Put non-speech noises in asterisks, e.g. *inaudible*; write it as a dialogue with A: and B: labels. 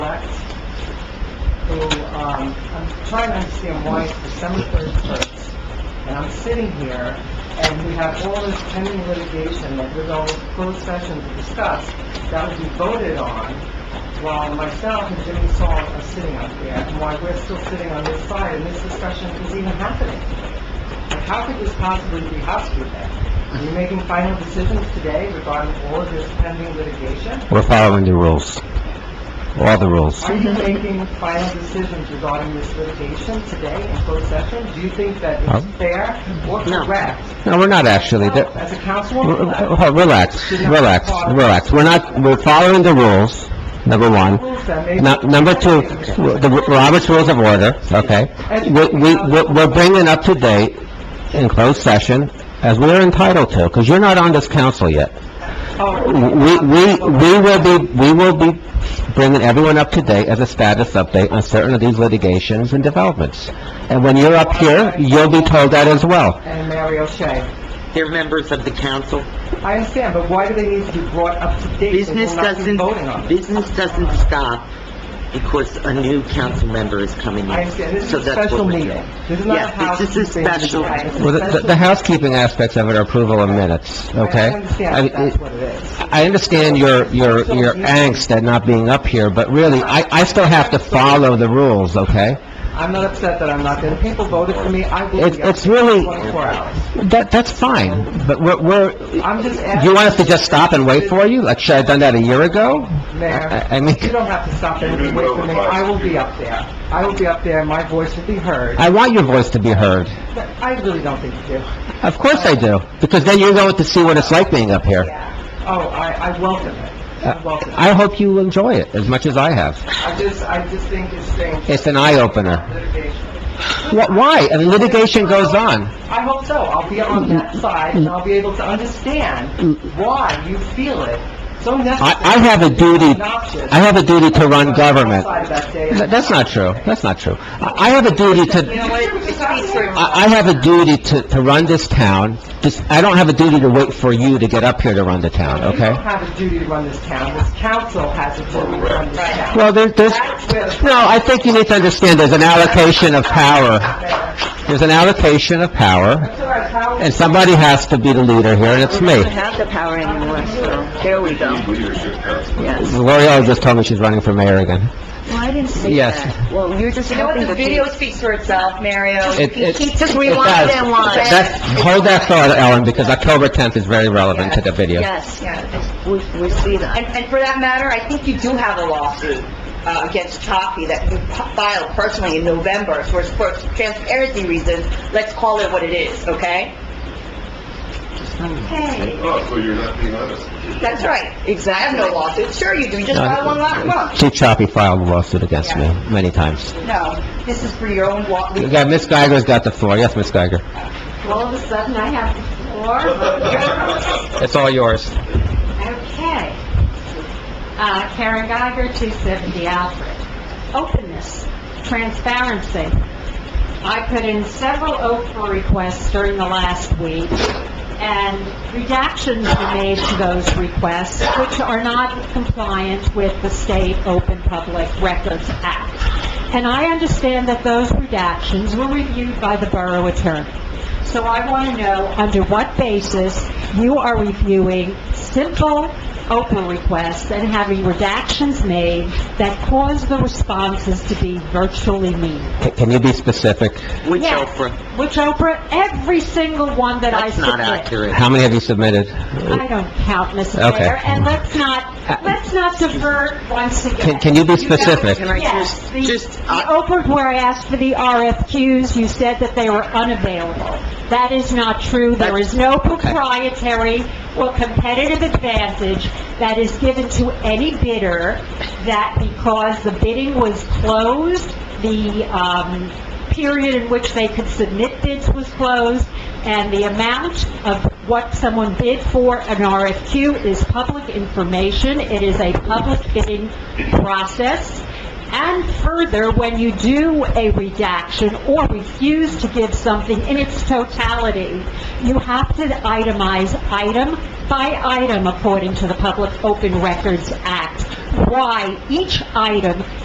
A: um, I'm trying to understand why it's December thirty-first, and I'm sitting here, and we have all this pending litigation that we're going to close session to discuss, that will be voted on, while myself and Jimmy Saul are sitting up there, and why we're still sitting on this side, and this discussion is even happening. Like, how could this possibly be housekeeping? Are you making final decisions today regarding all of this pending litigation?
B: We're following the rules, all the rules.
A: Are you making final decisions regarding this litigation today in closed session? Do you think that
B: No.
A: it's fair or correct?
B: No, we're not actually, The-
A: As a
B: r-
A: councilwoman,
B: r- r- relax, relax, relax. We're not, we're following the rules, number one.
A: rules that may...
B: Nu- uh, Number two, the Robert's Rules of Order, okay? We- we- We're we're bringing up to date in closed session, as we're entitled to, because you're not on this council yet.
A: Oh,
B: We we we will be, we will be bringing everyone up to date as a status update on certain of these litigations and developments. And when you're up here, you'll be told that as well.
A: And Mary O'Shea.
C: They're members of the council.
A: I understand, but why do they need to be brought up to date? if
C: Business
A: we're not
C: doesn't,
A: voting on it?
C: business doesn't stop because a new council member is coming in.
A: I understand, this is
C: So
A: a
C: that's what
A: special
C: we're doing.
A: meeting. This is not a
C: Yes, this is a
A: housekeeping meeting.
C: special-
A: It's a
B: Well, The the-
A: special-
B: the housekeeping aspects of it are approval of minutes, okay?
A: I understand,
B: mean,
A: that that's what it is.
B: I understand your, your, your angst at not being up here, but really, I, I still have to follow the rules, okay?
A: I'm not upset that I'm not there. The people voted for me, I will
B: It's-
A: be up
B: it's really-
A: 24 hours.
B: That, that's fine, but we're, we're,
A: I'm just asking...
B: you want us to just stop and wait for you? Like, should I have done that a year ago?
A: Mayor,
B: I- I mean-
A: you don't have to stop and wait for me. I will be up there. I will be up there, and my voice will be heard.
B: I want your voice to be heard.
A: But I really don't think you do.
B: Of course I do, because then you're going to see what it's like being up here.
A: Oh, I, I welcome it.
B: Uh,
A: I welcome it.
B: I hope you enjoy it as much as I have.
A: I just, I just think it's strange.
B: It's an eye-opener.
A: Litigation.
B: Wh- Why? And litigation goes on.
A: I hope so. I'll be on that side, and I'll be able to understand why you feel it so necessary.
B: I, I have a duty, I have a duty to run government.
A: Outside that day.
B: Th- That's not true, that's not true. I I have a duty
A: You know
B: to,
A: what? It's not true.
B: I I have a duty to, to run this town, This- I don't have a duty to wait for you to get up here to run the town,
A: You don't
B: okay?
A: have a duty to run this town. This council has a duty to run this town.
B: Well, there- there's, no, I think you need to understand, there's an allocation of power. There's an allocation of power, and somebody has to be the leader here, and it's me.
D: have the power anymore, so there we go. Yes.
B: L'Oreal just told me she's running for mayor again.
D: Well, I didn't say
B: Yes.
D: that. Well, you're just
E: You know what,
D: helping
E: the
D: the
E: video
D: people.
E: speaks for itself, Mario.
B: It- it-
D: Keep- just
B: it
D: rewind
B: does.
D: and watch.
B: That's- hold that thought, Ellen, because October 10th is very relevant to the video.
D: Yes,
E: Yeah.
D: we, we see that.
E: And, and for that matter, I think you do have a lawsuit uh, against Toffee that you p- filed personally in November, so it's for transparency reasons, let's call it what it is, okay? Hey,
F: Oh, so you're not being honest.
E: that's right. Exactly. I have no lawsuit. Sure you do. You just filed one last month.
B: Chief Choppy filed a lawsuit against me many times.
E: No, this is for your own law.
B: We got, Ms. Geiger's got the floor. Yes, Ms. Geiger.
G: All of a sudden, I have the
B: *laughs*
G: floor.
B: It's all yours.
G: Okay. Uh, Karen Geiger, 270 Alfred. Openness, transparency. I put in several OFER requests during the last week, and redactions were made to those requests, which are not compliant with the State Open Public Records Act. And I understand that those redactions were reviewed by the borough attorney. So I want to know, under what basis you are reviewing simple open requests and having redactions made that cause the responses to be virtually meaningless?
B: C- Can you be specific?
C: Which
G: Yeah.
C: Oprah?
G: Which, Oprah, every single one that I
C: That's
G: submit.
C: not accurate.
B: How many have you submitted?
G: I don't count, Mrs.
B: Okay.
G: Mayor, and let's
C: Uh,
G: not, let's not divert once
B: Can,
G: again.
B: can you be specific?
C: Can I
G: Yes,
C: just,
G: the,
C: just, uh,
G: the
C: I-
G: Oprah where I asked for the RFQs, you said that they were unavailable. That is not true. There is no proprietary or competitive advantage that is given to any bidder that because the bidding was closed, the, um, period in which they could submit bids was closed, and the amount of what someone bid for an RFQ is public information. It is a public bidding process. And further, when you do a redaction or refuse to give something in its totality, you have to itemize item by item according to the Public Open Records Act, why each item